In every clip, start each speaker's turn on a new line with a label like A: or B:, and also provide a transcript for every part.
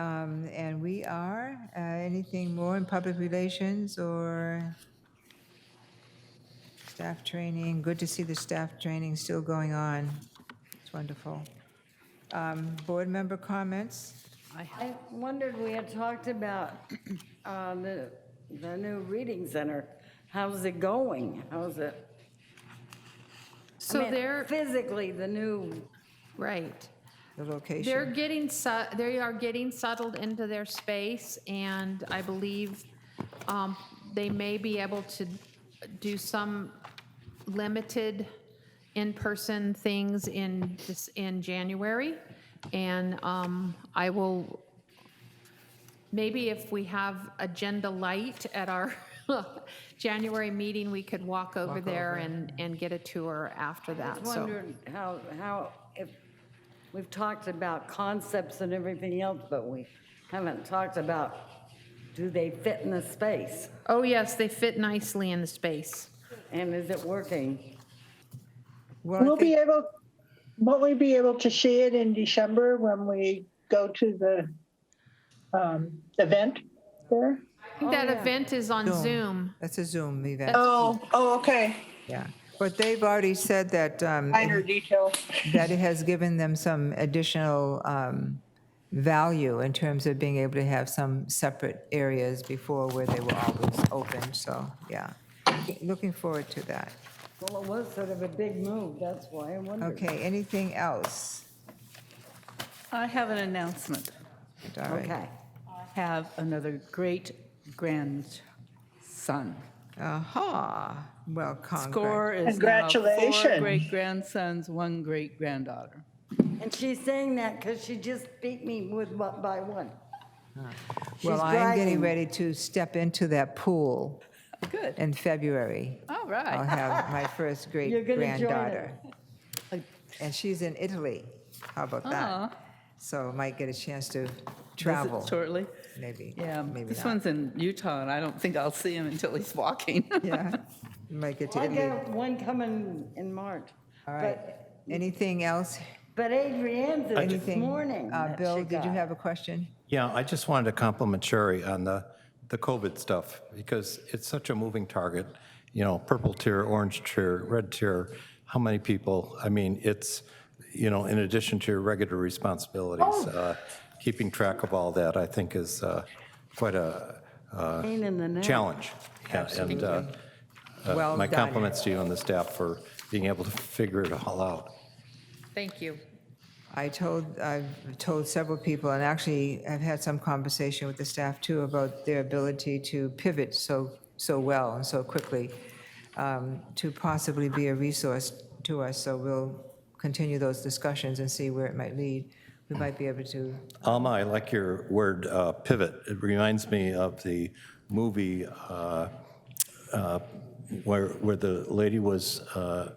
A: Um, And we are, uh, anything more in public relations or staff training? Good to see the staff training still going on. It's wonderful. Um, Board member comments?
B: I wondered, we had talked about uh, the, the new reading center. How's it going? How's it? I
C: So
B: mean,
C: they're,
B: Physically, the new,
C: right.
A: The location?
C: They're getting, su- they are getting settled into their space, and I believe um, they may be able to do some limited in-person things in, this- in January. And um, I will Maybe if we have agenda light at our January meeting, we could walk over there and, and get a tour after that, Uh, so.
B: wondered how, how, if, we've talked about concepts and everything else, but we haven't talked about, do they fit in the space?
C: Oh, yes, they fit nicely in the space.
B: And is it working?
A: Well, I
D: We'll be
A: think-
D: able, won't we be able to see it in December when we go to the um, event there?
C: I think that event is on Zoom.
A: That's a Zoom event,
D: Oh, oh, okay.
A: yeah. But they've already said that, um,
D: Minor detail.
A: that it has given them some additional um, value in terms of being able to have some separate areas before where they were always open, so, yeah. Looking forward to that.
B: Well, it was sort of a big move, that's why I wondered.
A: Okay, anything else?
E: I have an announcement.
A: All right.
B: Okay.
E: I have another great-grandson.
A: Aha, well, congrats.
E: Score is now four
D: Congratulations.
E: great-grandsons, one great-granddaughter.
B: And she's saying that because she just beat me with, one- by one.
A: Well,
B: she's
A: I'm getting
B: bragging.
A: ready to step into that pool
E: Good,
A: in February.
E: all
A: I'll
E: right.
A: have my first
B: You're
A: great
B: gonna join
A: granddaughter. And she's in Italy. How about
E: Aw.
B: Uh-huh.
A: that? So I might get a chance to
E: Visit
A: travel,
E: Shortly,
A: maybe.
E: yeah.
A: Maybe
E: This
A: not.
E: one's in Utah, and I don't think I'll see him until he's walking.
A: Yeah, might get to
B: I
A: Italy.
B: got one coming in March.
A: All right. Anything else?
B: But Adrienne did this
A: Anything?
B: morning
A: Uh,
B: that
A: Bill,
B: she
A: did you
B: got.
A: have a question?
F: Yeah, I just wanted to compliment Sherry on the, the COVID stuff, because it's such a moving target. You know, purple tier, orange tier, red tier, how many people? I mean, it's, you know, in addition to your regular responsibilities,
B: Oh.
F: uh, keeping track of all that, I think, is uh, quite a
B: Pain in the neck.
F: challenge. Yeah, And uh,
A: Well
F: my
A: done.
F: compliments to you and the staff for being able to figure it all out.
C: Thank you.
A: I told, I've told several people, and actually I've had some conversation with the staff too, about their ability to pivot so, so well and so quickly um, to possibly be a resource to us. So we'll continue those discussions and see where it might lead. We might be able to,
F: Alma, Um, I like your word uh, pivot. It reminds me of the movie uh, uh, where, where the lady was, uh,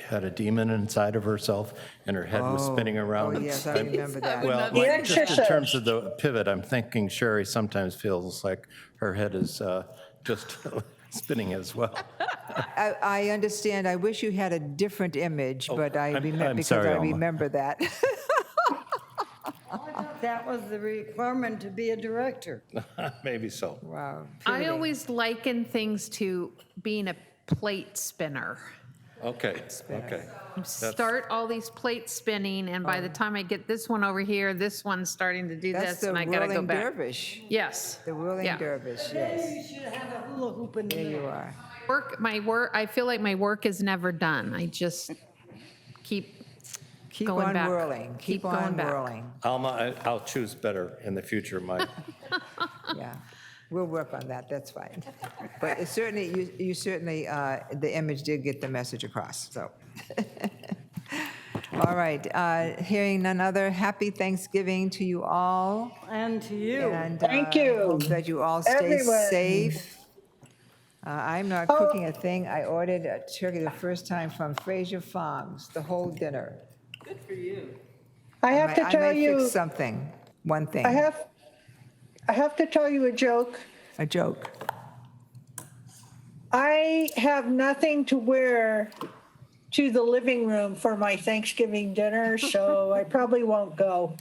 F: had a demon inside of herself and her head was spinning around.
A: oh
F: and
A: yes, I
F: spin-
A: remember that.
F: Well,
D: The
F: like, just in
D: exorcist.
F: terms of the pivot, I'm thinking Sherry sometimes feels like her head is uh, just spinning as well.
A: I, I understand, I wish you had a different image, but I
F: Oh, I'm-
A: remember,
F: I'm
A: because
F: sorry,
A: I
F: Alma.
A: remember that.
B: That was the requirement to be a director.
F: Maybe so.
A: Wow.
C: I always liken things to being a plate spinner.
F: Okay, okay.
C: Start all these plates spinning, and by the time I get this one over here, this one's starting to do
A: Oh. That's
C: this,
A: the
C: and I gotta go
A: whirling
C: back.
A: dervish.
C: Yes.
A: The whirling
C: Yeah.
A: dervish, yes,
B: You should have a hula hoop in the
A: there
B: middle.
A: you are.
C: Work, my work, I feel like my work is never done. I just keep
A: Keep
C: going
A: on
C: back.
A: whirling, keep
C: going
A: on
C: back.
A: whirling,
F: Alma, I- I'll choose better in the future, Mike.
A: yeah. We'll work on that, that's fine. But it certainly, you you certainly, uh, the image did get the message across, so. All right, uh, hearing none other, happy Thanksgiving to you all.
B: And to you.
A: and,
D: Thank
A: uh,
D: you.
A: Hope that you all stay
D: Everyone. Oh.
A: safe. Uh, I'm not cooking a thing. I ordered a turkey the first time from Fraser Farms, the whole dinner.
D: I have to
A: I-
D: tell
A: I may
D: you,
A: fix something, one thing,
D: I have, I have to tell you a joke.
A: a joke.
D: I have nothing to wear to the living room for my Thanksgiving dinner, so I probably won't go.